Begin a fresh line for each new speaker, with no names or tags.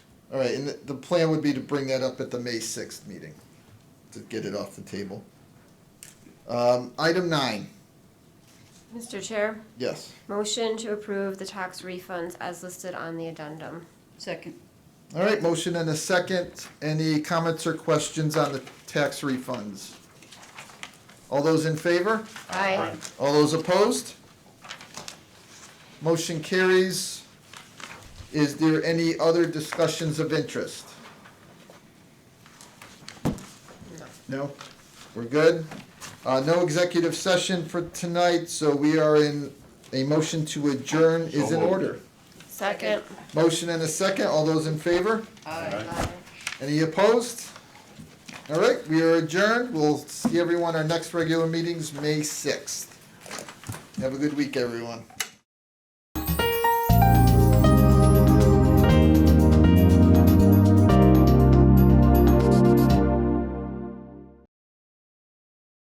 All right, and the, the plan would be to bring that up at the May sixth meeting, to get it off the table. Um, item nine,
Mr. Chair,
yes.
motion to approve the tax refunds as listed on the addendum.
Second.
All right, motion and a second. Any comments or questions on the tax refunds? All those in favor?
Aye.
All those opposed? Motion carries. Is there any other discussions of interest? No? We're good? Uh, no executive session for tonight, so we are in, a motion to adjourn is in order.
Second.
Motion and a second. All those in favor? Any opposed? All right, we are adjourned. We'll see everyone, our next regular meeting's May sixth. Have a good week, everyone.